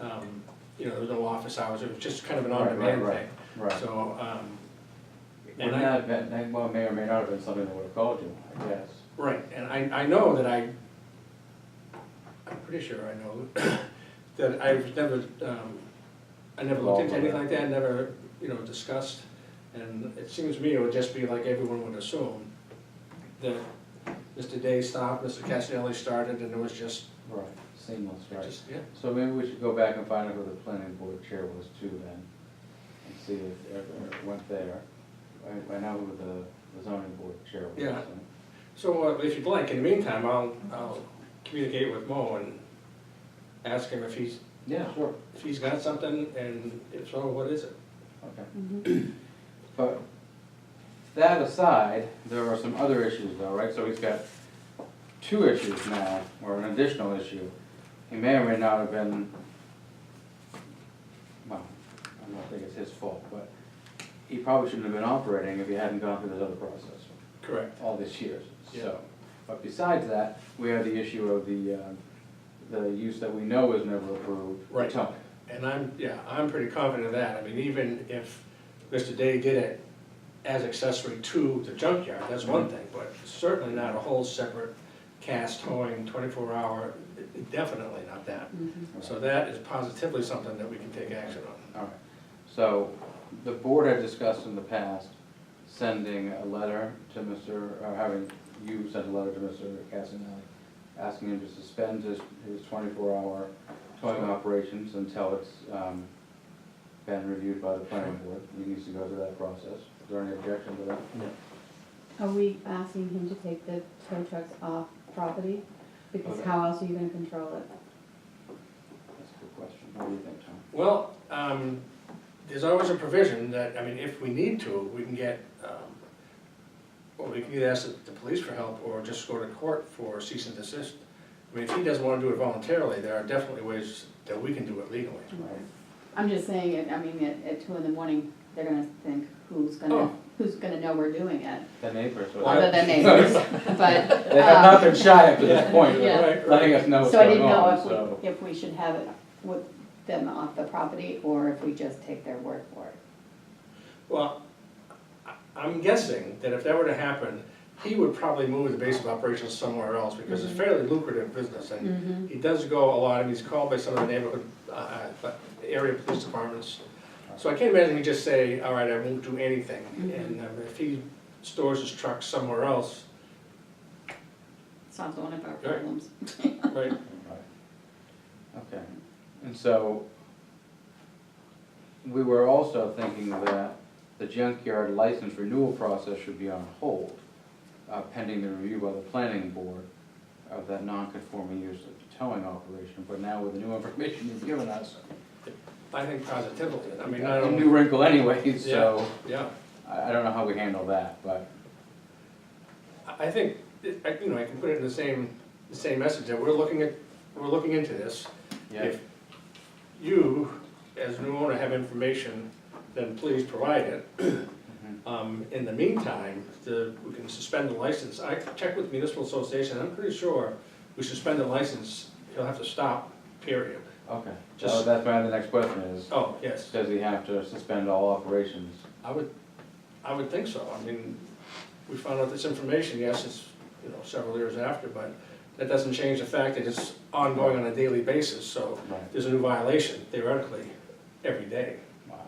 um, you know, there was no office hours, it was just kind of an Right, right, on-demand right, thing. Right. So, um, Well, and I, that, that, that well, may or may not have been something that would have called you, I guess. right, and I, I know that I, I'm pretty sure I know, that I've never, um, I never looked into anything like that, never, you know, discussed. And it seems to me it would just be like everyone would assume, that Mr. Day stopped, Mr. Castanelli started, and it was just, Right. Seamless, it right. just, yeah. So maybe we should go back and find out who the planning board chair was too then, and see if it ever went there. I, I know who the- the zoning board chair was. Yeah. and- So uh, if you'd like, in the meantime, I'll, I'll communicate with Mo and ask him if he's, Yeah, sure, if he's got something, and if so, what is it? okay. Mhm. But that aside, there are some other issues though, right? So he's got two issues now, or an additional issue. He may or may not have been, well, I don't think it's his fault, but he probably shouldn't have been operating if he hadn't gone through this other process Correct. all these years, Yeah. so. But besides that, we have the issue of the, uh, the use that we know is never approved. Right. Tuck. And I'm, yeah, I'm pretty confident of that. I mean, even if Mr. Day did it as accessory to the junkyard, that's one thing, but certainly not a whole separate cast towing, twenty-four hour, definitely not that. Mhm. So that is positively something that we can take action on. All right, so the board had discussed in the past sending a letter to Mr., or having you send a letter to Mr. Casanelli, asking him to suspend his, his twenty-four hour towing operations until it's, um, been reviewed by the planning board. He needs to go through that process. Is there any objection to that? Are we asking him to take the tow trucks off property? Because how else are you gonna control it? That's a good question. What do you think, Tom? Well, um, there's always a provision that, I mean, if we need to, we can get, um, well, we can either ask the- the police for help or just go to court for cease and desist. I mean, if he doesn't wanna do it voluntarily, there are definitely ways that we can do it legally. Mm-hmm. Right. I'm just saying, it. I mean, at, at two in the morning, they're gonna think, who's gonna, Oh. who's gonna know we're doing it? The neighbors, Well, would- Other than neighbors, but. they have not um, been shy up to this point, Yeah. Right, right. letting us know what's So I going didn't know on, if so. we, if we should have it with them off the property, or if we just take their word for it. Well, I- I'm guessing that if that were to happen, he would probably move the base of operations somewhere else because it's fairly lucrative business and Mhm. he does go a lot and he's called by some of the neighborhood, uh, uh, but area police departments. So I can't imagine he just say, all right, I won't do anything. Mhm. And um, if he stores his truck somewhere else, Solves one of our Right. problems. right, Right. Okay, and so, we were also thinking that the junkyard license renewal process should be on hold, uh, pending the review by the planning board of that non-conforming use of the towing operation, but now with the new information you've given us, I think positively. I mean, I a don't, new wrinkle anyway, so, yeah. I, I don't know how we handle that, but, I I think, I, you know, I can put it in the same, the same message that we're looking at, we're looking into this. yeah. If you, as new owner, have information, then please provide it. Mhm. Um, in the meantime, the, we can suspend the license. I checked with municipal association, I'm pretty sure we suspend the license, he'll have to stop, period. Okay, so Just- that's my, the next question is, Oh, yes, does he have to suspend all operations? I would, I would think so. I mean, we found out this information, yes, it's, you know, several years after, but that doesn't change the fact that it's ongoing on a daily basis, so Right. there's a new violation theoretically every day. Wow,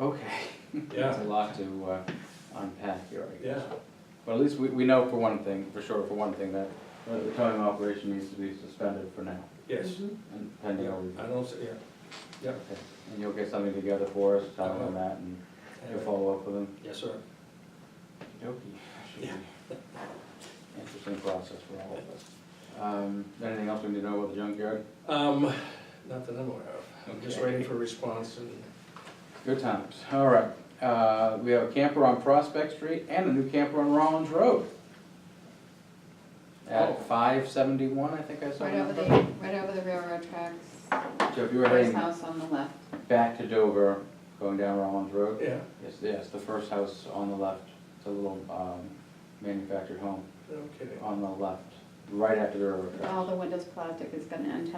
okay. Okay. Yeah. That's a lot to uh, unpack here, I guess. Yeah, But at least we, we know for one thing, for sure, for one thing, that uh, the towing operation needs to be suspended for now, yes. Mhm. and pending our review. I don't, see- yeah, Okay. And you'll get something together for us, Tom, Uh-huh. on that, and you'll Anyway, follow up with them. yes, sir. Okey-dokey. Should be Yeah. Interesting process for all of us. Um, Anything else we need to know about the junkyard? Um, not that I'm aware of, I'm just Okay. waiting for a response and, Good times, all right. Uh, We have a camper on Prospect Street and a new camper on Rollins Road. Oh. At five seventy-one, I think I saw. Right that. over the, right over the railroad tracks, So if you were first heading house on the left. back to Dover, going down Rollins Road, yeah, it's, yes, the first house on the left, it's a little um, manufactured home no kidding. on the left, right after the railroad tracks. Oh, All the windows plastic is gonna end